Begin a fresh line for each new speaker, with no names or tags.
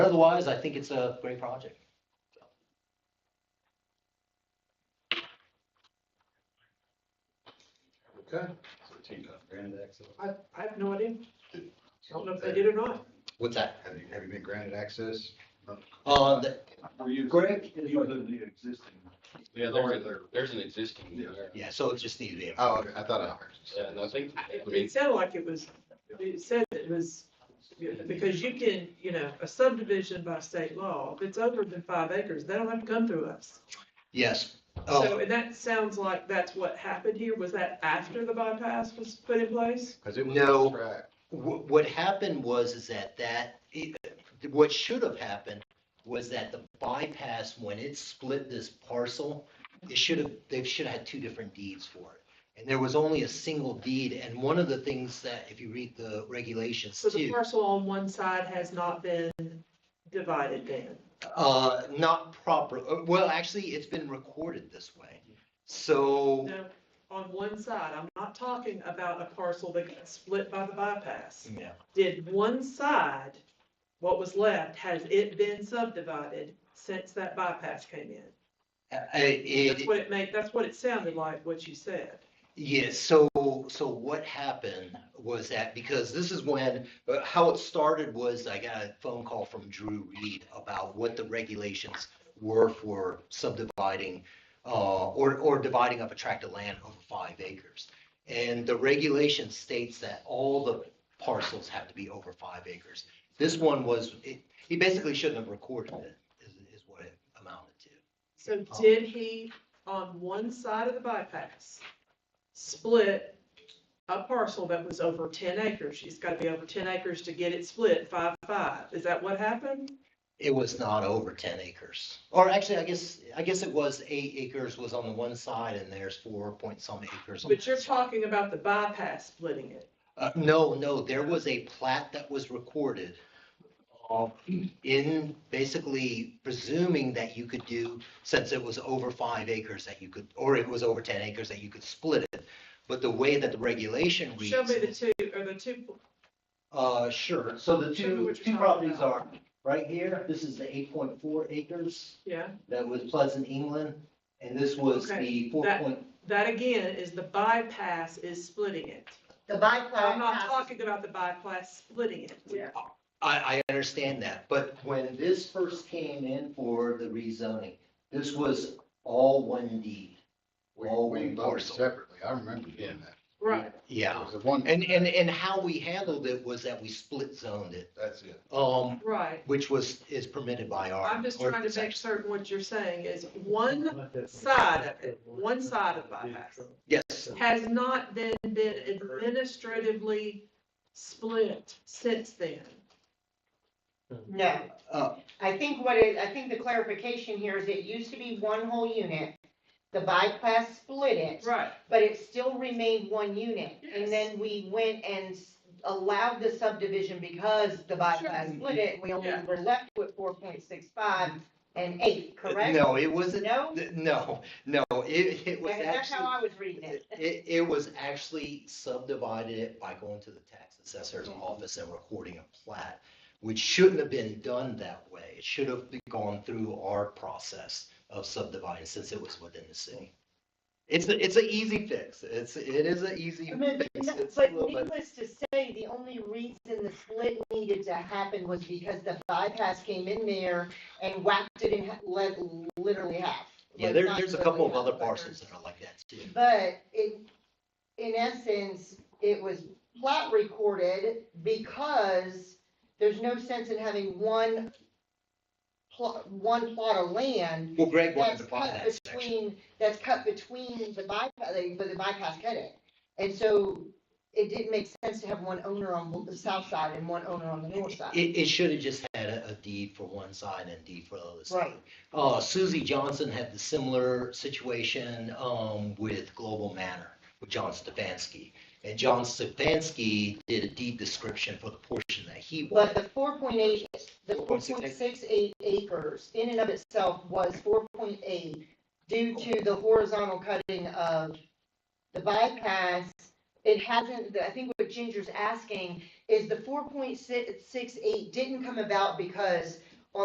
otherwise, I think it's a great project.
Okay.
I, I have no idea. Don't know if they did or not.
What's that? Have you, have you been granted access?
Uh, the-
Were you?
Greg?
You the the existing.
Yeah, there's, a- there's an existing
Yeah.
there.
yeah, Uh, so it just needed to be.
Oh, okay, I thought I
Yeah,
heard.
and I think, I mean,
It sounded like it was, it said it was, because you can, you know, a subdivision by state law, if it's over than five acres, they don't have to come through us.
Yes. Oh,
So, and that sounds like that's what happened here. Was that after the bypass was put in place?
Cause it was.
No.
Right.
What, what happened was is that that, it- what should have happened was that the bypass, when it split this parcel, it should have, they should have had two different deeds for it. And there was only a single deed, and one of the things that, if you read the regulations
So the
too,
parcel on one side has not been divided then?
uh, not proper, uh, well, actually, it's been recorded this way. So,
No, on one side, I'm not talking about a parcel that got split by the bypass.
yeah,
Did one side, what was left, has it been subdivided since that bypass came in?
uh, uh,
That's
it,
what it made, that's what it sounded like, what you said.
Yes, so, so what happened was that, because this is when, uh, how it started was I got a phone call from Drew Reed about what the regulations were for subdividing, uh, or, or dividing up a tract of land over five acres. And the regulation states that all the parcels have to be over five acres. This one was, it, he basically shouldn't have recorded it, is, is what it amounted to.
So
Oh.
did he, on one side of the bypass, split a parcel that was over ten acres? It's gotta be over ten acres to get it split five, five. Is that what happened?
It was not over ten acres, or actually, I guess, I guess it was eight acres was on the one side and there's four point some acres. on
But
the
you're
other side.
talking about the bypass splitting it.
Uh, no, no, there was a plat that was recorded uh, in basically presuming that you could do, since it was over five acres that you could, or it was over ten acres that you could split it. But the way that the regulation reads.
Show me the
is-
two, or the two,
Uh, sure, so the
Show me
two,
what you're
two
talking
properties are
about.
right here, this is the eight point four acres.
yeah,
that was Pleasant, England, and this was the
Okay,
four
that-
point,
that again is the bypass is splitting it.
The bypass.
I'm not talking about the bypass splitting it.
I, I understand that, but when this first came in for the rezoning, this was all one deed.
We,
all
we
one
voted
parcel.
separately. I remember doing that.
Right.
It
Yeah,
was the one,
and, and, and how we handled it was that we split zoned it,
that's it.
um,
Right.
which was, is permitted by our.
I'm just trying to make
ordinance.
certain what you're saying is one side of it, one side of bypass,
Yes,
has not then been administratively split since then.
No,
uh,
I think what it, I think the clarification here is it used to be one whole unit. The bypass split it,
Right.
but it still remained one unit.
Yes.
And then we went and s- allowed the subdivision because the bypass split it, we only
Yeah.
were left with four point six five and eight, correct?
no, it wasn't,
No?
no, no, it, it was
Yeah, That's
actually.
how I was reading it.
It, it- it was actually subdivided it by going to the tax assessor's
Mm-hmm.
office and recording a plat, which shouldn't have been done that way. It should have gone through our process of subdividing since it was within the city. It's, a- it's an easy fix. It's, it is an easy
I mean,
fix.
no,
It's a
But
little bit-
needless to say, the only reason the split needed to happen was because the bypass came in there and whacked it in, ha- let, literally half.
Yeah,
Like,
there,
not
there's a
literally
couple of
half,
other
but-
parcels that are like that too.
But in, in essence, it was plat recorded because there's no sense in having one plot, one plot of land
Well, Greg wanted
that's
to buy
cut
that section.
between, that's cut between the bypass, but the bypass cut it. And so it didn't make sense to have one owner on the south side and one owner on the north side.
It, it should have just had a, a deed for one side and deed for the other side.
Right.
Uh, Susie Johnson had the similar situation, um, with Global Manor, with John Stefanski. And John Stefanski did a deed description for the portion that he
But
wanted.
the four point eight, the four
4.68.
point six eight acres in and of itself was four point eight due to the horizontal cutting of the bypass. It hasn't, I think what Ginger's asking is the four point six, six eight didn't come about because